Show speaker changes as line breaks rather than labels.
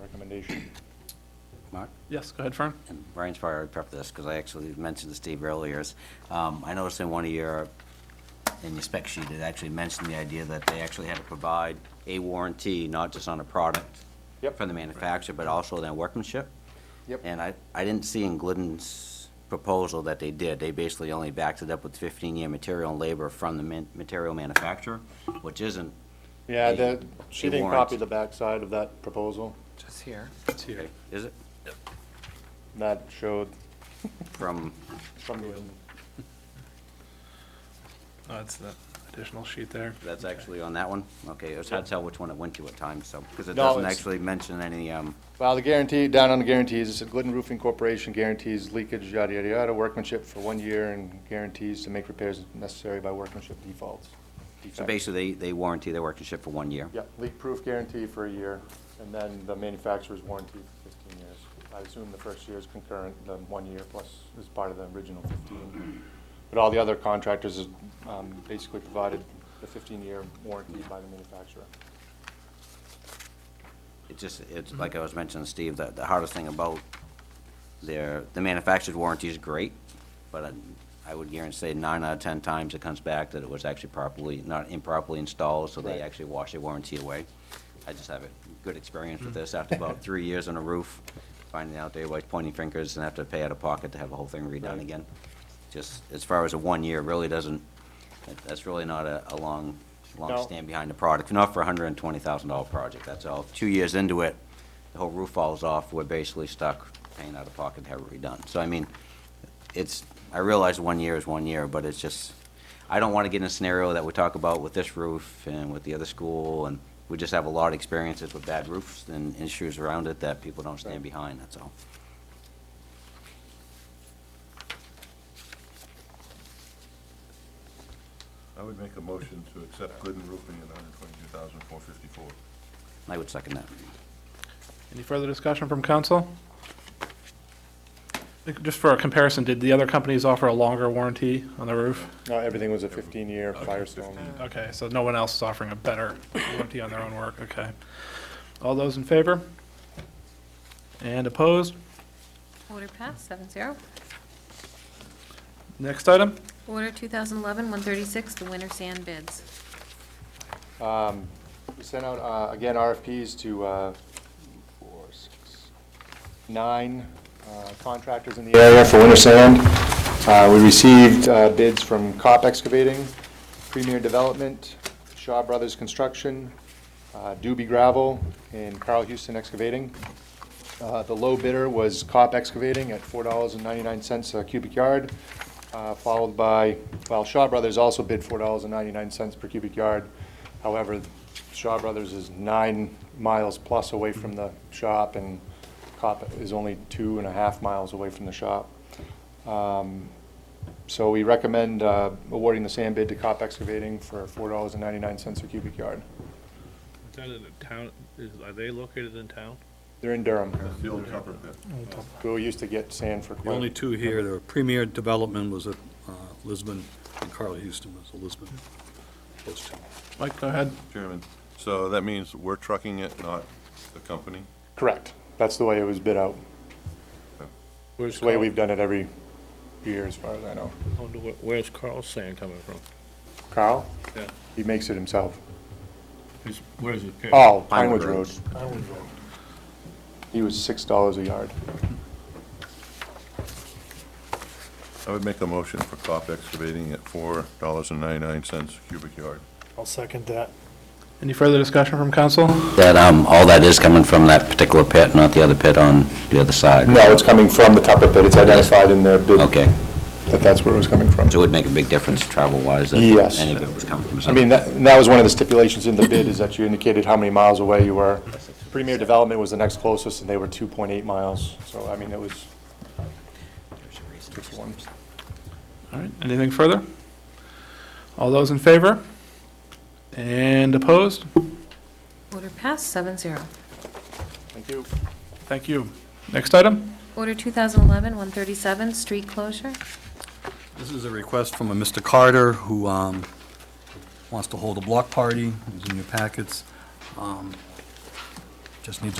recommendation.
Mark?
Yes, go ahead, Fern.
And Brian's probably already prepped this, because I actually mentioned to Steve earlier, is, um, I noticed in one of your, in your spec sheet, it actually mentioned the idea that they actually had to provide a warranty, not just on a product
Yep.
from the manufacturer, but also their workmanship.
Yep.
And I, I didn't see in Glidden's proposal that they did. They basically only backed it up with fifteen-year material and labor from the man, material manufacturer, which isn't.
Yeah,
a-
the, she
a
didn't
warrant.
copy the backside of that proposal.
Just here.
It's here.
Okay, Is it?
That showed
From,
from the,
Oh, it's that additional sheet there.
that's actually on that one? Okay, it was hard to tell which one it went to at times, so, because it
No,
doesn't
it's-
actually mention any, um,
well, the guarantee, down on the guarantees, it said Glidden Roofing Corporation guarantees leakage, yada, yada, yada, workmanship for one year and guarantees to make repairs necessary by workmanship defaults.
so
defects.
basically, they, they warranty their workmanship for one year.
Yeah, leak-proof guarantee for a year, and then the manufacturer's warranty for fifteen years. I assume the first year is concurrent, the one year plus is part of the original fifteen. But all the other contractors is, um, basically provided the fifteen-year warranty by the manufacturer.
It just, it's,
Mm-hmm.
like I was mentioning, to Steve, that the hardest thing about their, the manufacturer's warranty is great, but I, I would guarantee nine out of ten times it comes back that it was actually properly, not improperly installed, so they
Right.
actually wash their warranty away. I just have a good experience
Mm-hmm.
with this after about three years on a roof, finding out they were pointing fingers and have to pay out of pocket to have the whole thing redone
Right.
again. Just, as far as a one year, really doesn't, that- that's really not a, a long, long
No.
stand stand behind the product, not for a hundred and twenty thousand dollar project, that's all. Two years into it, the whole roof falls off, we're basically stuck paying out of pocket to have it redone. So I mean, it's, I realize one year is one year, but it's just, I don't wanna get in a scenario that we talk about with this roof and with the other school, and we just have a lot of experiences with bad roofs and issues around it that people don't stand behind, that's all.
I would make a motion to accept Glidden Roofing at hundred and twenty-two thousand, four fifty-four.
I would second that.
Any further discussion from council? Just for a comparison, did the other companies offer a longer warranty on the roof?
No, everything was a fifteen-year Firestone.
Okay, so no one else is offering a better warranty on their own work, okay. All those in favor? And opposed?
Order passed, seven zero.
Next item?
Order 2011-136, the winter sand bids.
Um, We sent out, uh, again, RFPs to uh, four, six, nine uh, contractors in the area for winter sand. Uh, We received uh, bids from COP Excavating, Premier Development, Shaw Brothers Construction, uh, Doobie Gravel, and Carl Houston Excavating. Uh, The low bidder was COP Excavating at $4.99 a cubic yard, uh, followed by, well, Shaw Brothers also bid $4.99 per cubic yard. However, Shaw Brothers is nine miles plus away from the shop, and COP is only two and a half miles away from the shop. Um, So we recommend uh, awarding the sand bid to COP Excavating for $4.99 a cubic yard.
Is that in the town, is, are they located in town?
They're in Durham.
That's the old copper pit.
We used to get sand for
The only
quite,
two here, the premier development was at uh, Lisbon, and Carl Houston was at Lisbon. Those two.
Mike, go ahead.
Chairman, so that means we're trucking it, not the company?
correct. That's the way it was bid out.
Where's
It's the way
Carl-
we've done it every year, as far as I know.
I wonder where- Where's Carl's sand coming from?
Carl,
Yeah.
he makes it himself.
Where's his pit?
Oh,
Pine
Pinewood
Wood
Road. He was six dollars a yard.
I would make a motion for COP excavating at four dollars and ninety-nine cents cubic yard.
I'll second that.
Any further discussion from council?
That, um, all that is coming from that particular pit, not the other pit on the other side.
No, it's coming from the Tupper Pit. It's identified in their bid.
Okay.
That that's where it was coming from.
So it would make a big difference travel-wise if
Yes.
any of it would come from
I mean, that, and that was one of the stipulations in the bid, is that you indicated how many miles away you were. Premier Development was the next closest, and they were two point eight miles. So, I mean, it was, it's one.
All right, anything further? All those in favor? And opposed?
Order passed, seven zero.
Thank you.
Thank you. Next item?
Order 2011-137, street closure.
This is a request from a Mr. Carter who um, wants to hold a block party, it's in your packets. Um, Just needs a